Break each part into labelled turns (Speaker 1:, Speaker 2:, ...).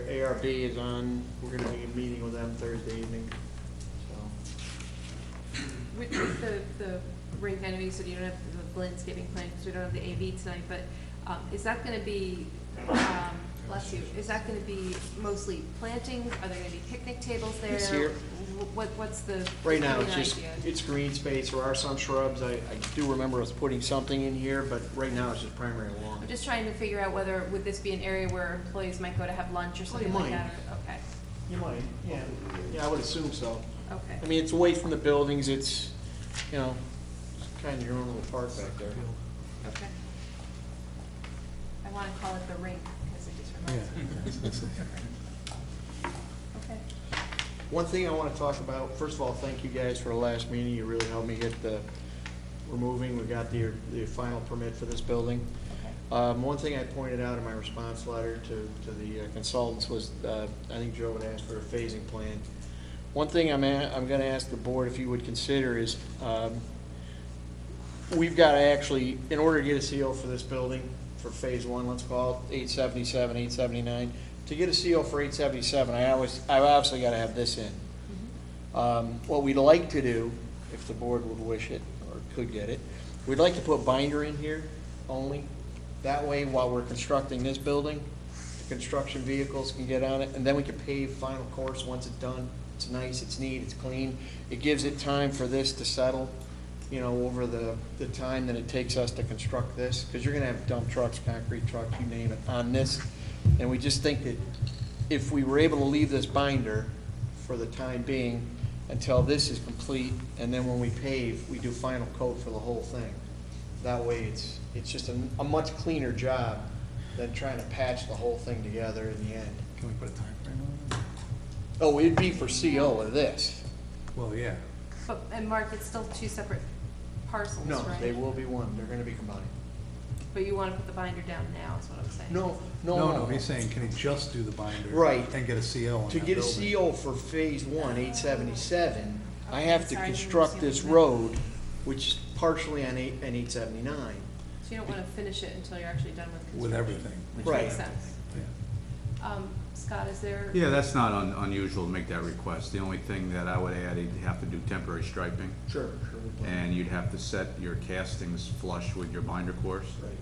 Speaker 1: ARB is on, we're gonna be meeting with them Thursday evening, so.
Speaker 2: With with the, the rink, I know you said you don't have the landscaping plan, because we don't have the AV tonight, but, um, is that gonna be, um, bless you, is that gonna be mostly plantings? Are there gonna be picnic tables there?
Speaker 1: It's here.
Speaker 2: Wh- What, what's the?
Speaker 1: Right now, it's
Speaker 2: give me an
Speaker 1: just,
Speaker 2: idea.
Speaker 1: it's green space, there are some shrubs, I, I do remember us putting something in here, but right now it's just primary lawn.
Speaker 2: I'm just trying to figure out whether, would this be an area where employees might go to have lunch or something like
Speaker 1: Oh, might.
Speaker 2: that? or- Okay,
Speaker 1: You might, yeah, yeah, I would assume so.
Speaker 2: okay.
Speaker 1: I mean, it's away from the buildings, it's, you know, kind of your own little park back there.
Speaker 2: Okay. I want to call it the rink, because it just reminds me. Okay.
Speaker 1: One thing I want to talk about, first of all, thank you guys for the last meeting, you really helped me get the, we're moving, we got the, the final permit for this building.
Speaker 2: Okay.
Speaker 1: Um, one thing I pointed out in my response letter to, to the consultants was, uh, I think Joe had asked for a phasing plan. One thing I'm, a- I'm gonna ask the board if you would consider is, um, we've gotta actually, in order to get a CO for this building, for phase one, let's call it, eight seventy-seven, eight seventy-nine, to get a CO for eight seventy-seven, I always, I obviously gotta have this in. Um, What we'd like to do, if the board would wish it, or could get it, we'd like to put binder in here only. That way, while we're constructing this building, the construction vehicles can get on it, and then we can pave final course once it's done. It's nice, it's neat, it's clean. It gives it time for this to settle, you know, over the, the time that it takes us to construct this, because you're gonna have dump trucks, concrete trucks, you name it, on this. And we just think that if we were able to leave this binder for the time being, until this is complete, and then when we pave, we do final coat for the whole thing. That way, it's, it's just a, a much cleaner job than trying to patch the whole thing together in the end.
Speaker 3: Can we put a timeframe on
Speaker 1: Oh, it'd be for CO of this.
Speaker 3: it? Well, yeah.
Speaker 2: But, and Mark, it's still two separate parcels,
Speaker 1: No,
Speaker 2: right?
Speaker 1: they will be one, they're gonna be combined.
Speaker 2: But you want to put the binder down now, is what I'm saying.
Speaker 1: No, no, no.
Speaker 3: No, no, he's saying, can he just do the binder?
Speaker 1: Right.
Speaker 3: And get a CO on
Speaker 1: To
Speaker 3: that
Speaker 1: get a
Speaker 3: building?
Speaker 1: CO for phase one, eight seventy-seven, I have to
Speaker 2: Okay, sorry, I didn't
Speaker 1: construct
Speaker 2: understand
Speaker 1: this
Speaker 2: what you
Speaker 1: road, which is partially on eight, and eight seventy-nine.
Speaker 2: So you don't want to finish it until you're actually done with construction?
Speaker 3: With everything.
Speaker 2: Which
Speaker 1: Right.
Speaker 2: makes sense.
Speaker 3: Yeah.
Speaker 2: Um, Scott, is there?
Speaker 4: Yeah, that's not un- unusual to make that request. The only thing that I would add, you'd have to do temporary striping,
Speaker 1: Sure, sure. we plan.
Speaker 4: and you'd have to set your castings flush with your binder course,
Speaker 1: Right.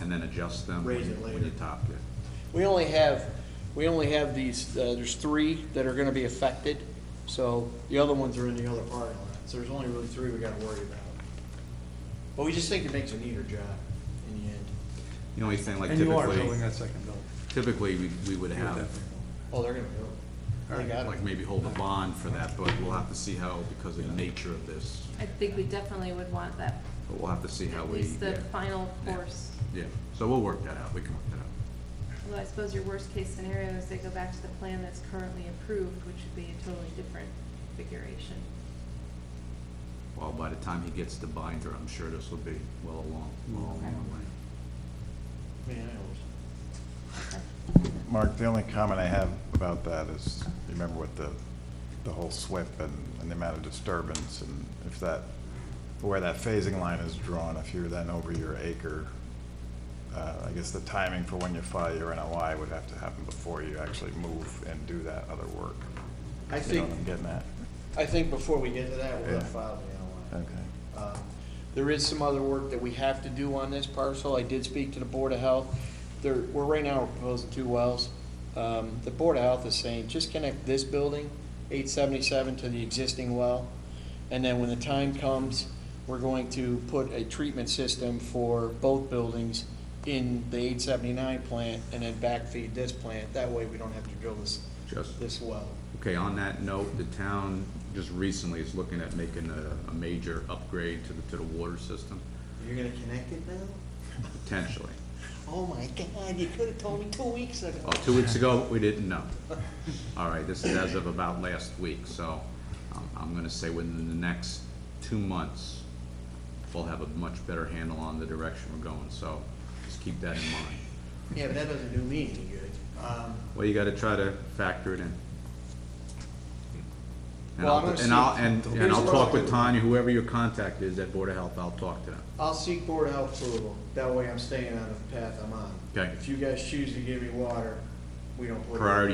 Speaker 4: and then adjust them
Speaker 1: Raise it
Speaker 4: when when you
Speaker 1: later.
Speaker 4: top it.
Speaker 1: We only have, we only have these, uh, there's three that are gonna be affected, so the other ones are in the other parking lot, so there's only really three we gotta worry about. But we just think it makes a neater job in the end.
Speaker 4: The only thing, like
Speaker 3: And you are building
Speaker 4: typically,
Speaker 3: that second building.
Speaker 4: typically, we we would
Speaker 3: You're
Speaker 4: have,
Speaker 3: definitely building
Speaker 1: Oh, they're gonna go. They got it.
Speaker 4: like, maybe hold a bond for that, but we'll have to see how, because of the nature of this,
Speaker 2: I think we definitely would want that,
Speaker 4: but we'll have to see how
Speaker 2: at
Speaker 4: we,
Speaker 2: least the
Speaker 4: yeah.
Speaker 2: final
Speaker 4: Yeah.
Speaker 2: course.
Speaker 4: Yeah, so we'll work that out, we can work that out.
Speaker 2: Although I suppose your worst-case scenario is they go back to the plan that's currently approved, which would be a totally different configuration.
Speaker 4: Well, by the time he gets the binder, I'm sure this will be well along, well along the way.
Speaker 1: Man, I always-
Speaker 5: Mark, the only comment I have about that is, remember with the, the whole SWIP and, and the amount of disturbance, and if that, where that phasing line is drawn, if you're then over your acre, uh, I guess the timing for when you file your NOI would have to happen before you actually move and do that other work.
Speaker 1: I
Speaker 5: You know
Speaker 1: think,
Speaker 5: what I'm getting at?
Speaker 1: I think before we get to that, we're gonna
Speaker 5: Yeah.
Speaker 1: file the NOI.
Speaker 5: Okay.
Speaker 1: Um, There is some other work that we have to do on this parcel. I did speak to the Board of Health. There, we're right now proposing two wells. Um, The Board of Health is saying, just connect this building, 877, to the existing well. And then when the time comes, we're going to put a treatment system for both buildings in the 879 plant and then backfeed this plant. That way, we don't have to drill this,
Speaker 4: Just,
Speaker 1: this well.
Speaker 4: Okay, on that note, the town just recently is looking at making a, a major upgrade to the, to the water system,
Speaker 1: You're gonna connect it now?
Speaker 4: potentially.
Speaker 1: Oh my God, you could have told me two weeks ago.
Speaker 4: Well, two weeks ago, we didn't know. All right, this is as of about last week, so um, I'm gonna say within the next two months, we'll have a much better handle on the direction we're going, so just keep that in mind.
Speaker 1: Yeah, but that doesn't do me any good. Um,
Speaker 4: Well, you gotta try to factor it in. And
Speaker 1: Well, I'm
Speaker 4: I'll,
Speaker 1: gonna
Speaker 4: and I'll,
Speaker 1: see-
Speaker 4: and, and
Speaker 1: Here's
Speaker 4: I'll
Speaker 1: what I'll
Speaker 4: talk with
Speaker 1: do.
Speaker 4: Tanya, whoever your contact is at Board of Health, I'll talk to them.
Speaker 1: I'll seek board of health approval, that way I'm staying on the path I'm on.
Speaker 4: Okay.
Speaker 1: If you guys choose to give me water, we don't. put it in.
Speaker 4: Priority